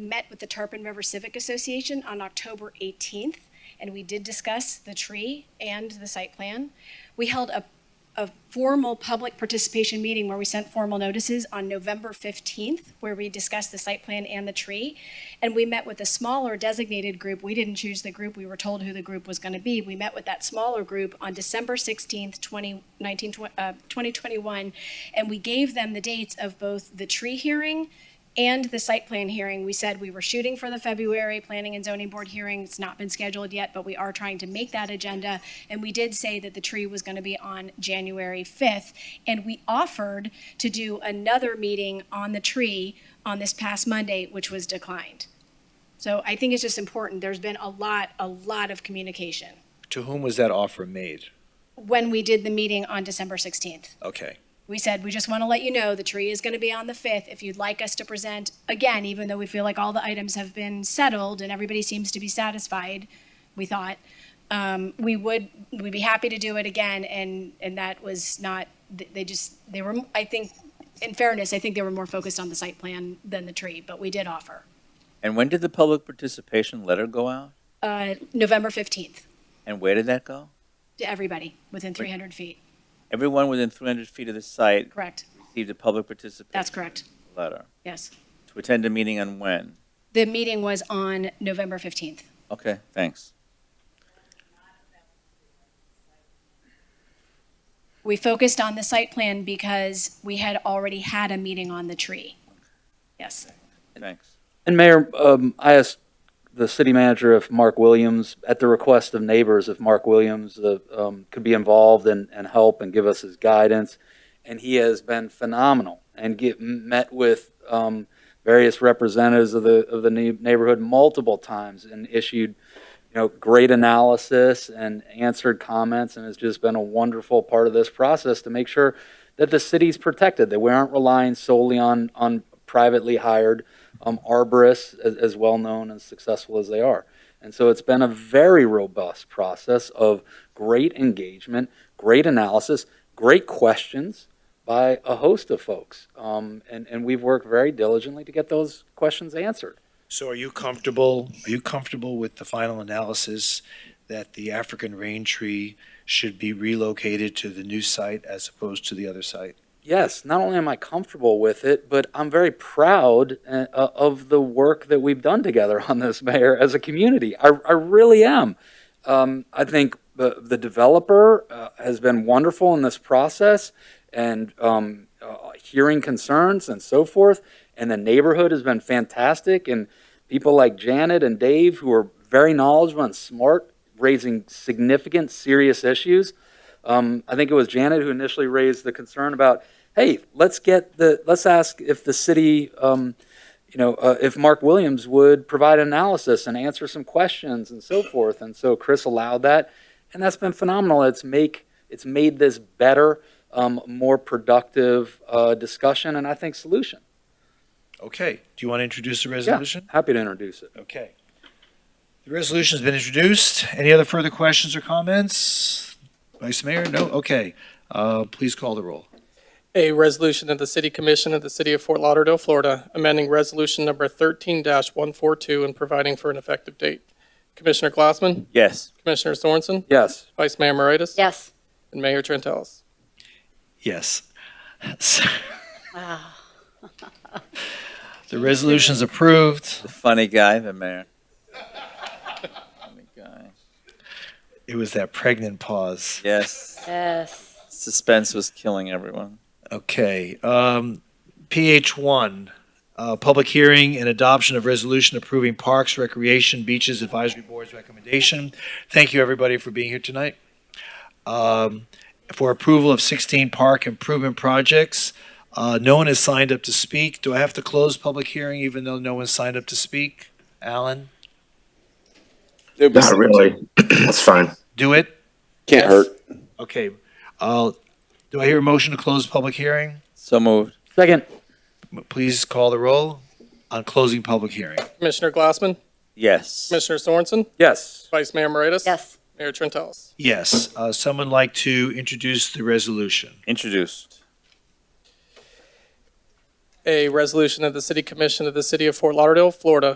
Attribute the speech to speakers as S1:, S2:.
S1: met with the Tarpon River Civic Association on October 18th, and we did discuss the tree and the site plan. We held a, a formal public participation meeting where we sent formal notices on November 15th, where we discussed the site plan and the tree. And we met with a smaller designated group. We didn't choose the group. We were told who the group was going to be. We met with that smaller group on December 16th, 2019, tw- uh, 2021, and we gave them the dates of both the tree hearing and the site plan hearing, we said we were shooting for the February Planning and Zoning Board hearing. It's not been scheduled yet, but we are trying to make that agenda. And we did say that the tree was going to be on January 5th. And we offered to do another meeting on the tree on this past Monday, which was declined. So I think it's just important. There's been a lot, a lot of communication
S2: To whom was that offer made?
S1: when we did the meeting on December 16th.
S2: Okay,
S1: We said, we just want to let you know the tree is going to be on the 5th. If you'd like us to present, again, even though we feel like all the items have been settled and everybody seems to be satisfied, we thought, um, we would, we'd be happy to do it again. And, and that was not, th- they just, they were, I think, in fairness, I think they were more focused on the site plan than the tree, but we did offer.
S3: And when did the public participation letter go out?
S1: Uh, November 15th
S3: And where did that go?
S1: to everybody within 300 feet,
S3: Everyone within 300 feet of the site
S1: correct?
S3: received a public participation
S1: That's correct,
S3: letter
S1: yes.
S3: to attend a meeting on when?
S1: The meeting was on November 15th.
S3: Okay, thanks.
S1: We focused on the site plan because we had already had a meeting on the tree. Yes.
S3: Thanks.
S4: And Mayor, um, I asked the city manager if Mark Williams, at the request of neighbors, if Mark Williams, uh, um, could be involved and, and help and give us his guidance. And he has been phenomenal and get, met with, um, various representatives of the, of the neigh- neighborhood multiple times and issued, you know, great analysis and answered comments and has just been a wonderful part of this process to make sure that the city's protected, that we aren't relying solely on, on privately hired um, arborists, as, as well known and successful as they are. And so it's been a very robust process of great engagement, great analysis, great questions by a host of folks. Um, and, and we've worked very diligently to get those questions answered.
S5: So are you comfortable, are you comfortable with the final analysis that the African rain tree should be relocated to the new site as opposed to the other site?
S4: Yes, not only am I comfortable with it, but I'm very proud uh, of the work that we've done together on this, Mayor, as a community. I, I really am. Um, I think the, the developer uh, has been wonderful in this process and um, uh, hearing concerns and so forth. And the neighborhood has been fantastic. And people like Janet and Dave, who are very knowledgeable and smart, raising significant, serious issues. Um, I think it was Janet who initially raised the concern about, hey, let's get the, let's ask if the city, um, you know, uh, if Mark Williams would provide analysis and answer some questions and so forth. And so Chris allowed that, and that's been phenomenal. It's make it's made this better, um, more productive uh, discussion, and I think solution.
S5: Okay, do you want to introduce the
S4: Yeah,
S5: resolution?
S4: happy to introduce it.
S5: Okay. The resolution's been introduced. Any other further questions or comments? Vice Mayor, no? Okay. Uh, please call the roll.
S6: A resolution of the City Commission of the City of Fort Lauderdale, Florida, amending Resolution Number 13-142 and providing for an effective date. Commissioner Glassman,
S3: Yes.
S6: Commissioner Sorensen,
S4: Yes,
S6: Vice Mayor Moritas,
S7: Yes.
S6: and Mayor Trentalles.
S5: Yes. The resolution's approved.
S3: The funny guy, the mayor. Funny guy.
S5: It was that pregnant pause.
S3: Yes.
S7: Yes.
S3: Suspense was killing everyone.
S5: Okay, um, PH one, uh, public hearing and adoption of resolution approving Parks, Recreation, Beaches Advisory Board's recommendation. Thank you, everybody, for being here tonight. Um, for approval of sixteen park improvement projects. Uh, no one has signed up to speak. Do I have to close public hearing even though no one signed up to speak? Alan,
S8: Not really. That's fine.
S5: do it?
S8: Can't hurt.
S5: Okay, uh, do I hear a motion to close public hearing?
S3: So moved.
S4: second.
S5: Please call the roll on closing public hearing.
S6: Commissioner Glassman,
S3: Yes.
S6: Commissioner Sorensen,
S4: Yes,
S6: Vice Mayor Moritas.
S7: Yes.
S6: Mayor Trentalles.
S5: Yes, uh, someone like to introduce the resolution.
S3: Introduced.
S6: A resolution of the City Commission of the City of Fort Lauderdale, Florida,